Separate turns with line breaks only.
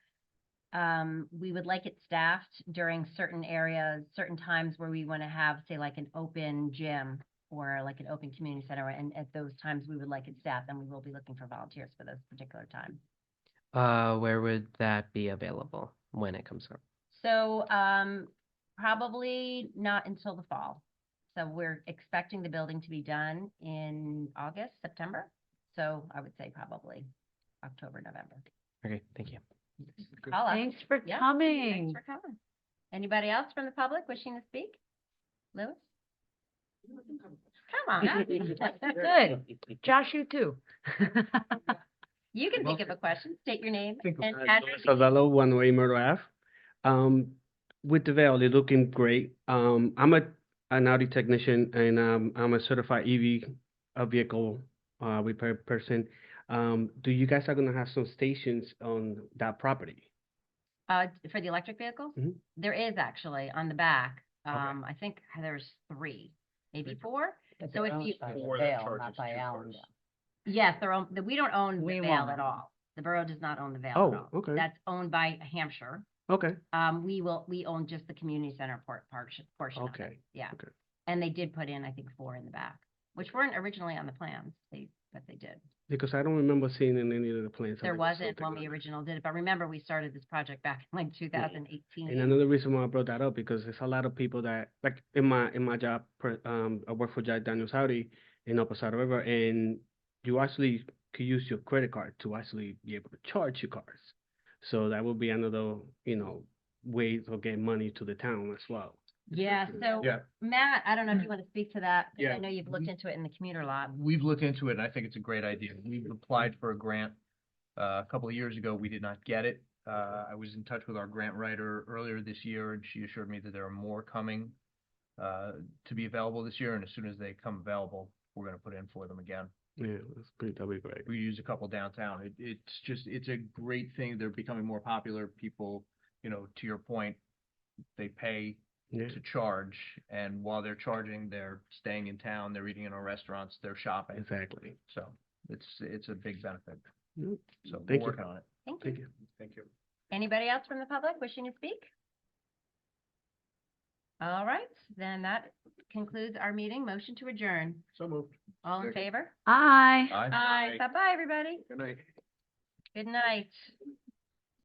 um, we would like it staffed during certain areas, certain times where we want to have, say, like an open gym or like an open community center, and at those times, we would like it staffed, and we will be looking for volunteers for those particular times.
Uh, where would that be available when it comes up?
So, um, probably not until the fall. So we're expecting the building to be done in August, September. So I would say probably October, November.
Okay, thank you.
Paula,
Thanks for
yeah,
coming.
Thanks for coming. Anybody else from the public wishing to speak? Louis? Come on up.
Good. Josh, you too.
You can think of a question, state your name
Think of
and
that,
address.
Savello, One Way Myrtle Ave. Um, with the veil, they're looking great. Um, I'm a an Audi technician and um, I'm a certified EV uh, vehicle uh, repair person. Um, do you guys are gonna have some stations on that property?
Uh, for the electric vehicles?
Mhm.
There is actually on the back. Um, I think there's three, maybe four. So if you,
Four that charges two cars.
Yes, they're own, the- we don't own the
We
Vale
won't own it.
at all. The borough does not own the Vale at
Oh,
all.
okay,
That's owned by Hampshire.
okay,
Um, we will, we own just the community center port, portion, portion of it.
Okay,
Yeah.
okay.
And they did put in, I think, four in the back, which weren't originally on the plans, they, but they did.
because I don't remember seeing in any of the plans.
There
like
wasn't
something
when
like
we
that.
original did it, but remember, we started this project back in like two thousand
And
eighteen.
another reason why I brought that up because there's a lot of people that like in my in my job, per- um, I work for Jack Daniel Saudi in El Paso River, and you actually could use your credit card to actually be able to charge your cars. So that would be another you know way to get money to the town as well.
Yeah, so
Yeah.
Matt, I don't know if you want to speak to that, 'cause I
Yeah.
know you've looked into it in the commuter lot.
We've looked into it and I think it's a great idea. We've applied for a grant. Uh, a couple of years ago, we did not get it. Uh, I was in touch with our grant writer earlier this year and she assured me that there are more coming uh, to be available this year and as soon as they come available, we're gonna put in for them again.
Yeah, that's pretty that'd be great.
We use a couple downtown. It, it's just, it's a great thing. They're becoming more popular. People, you know, to your point, they pay
Yeah,
to charge, and while they're charging, they're staying in town, they're eating in our restaurants, they're shopping.
exactly.
So it's, it's a big benefit.
Yep.
So
Mm-hmm.
we're
Thank you.
working on it.
Thank you.
Thank you.
Thank you.
Anybody else from the public wishing to speak? All right, then that concludes our meeting. Motion to adjourn.
So moved.
All in
Second.
favor?
Aye.
Aye.
Bye-bye, everybody.
Good night.
Good night.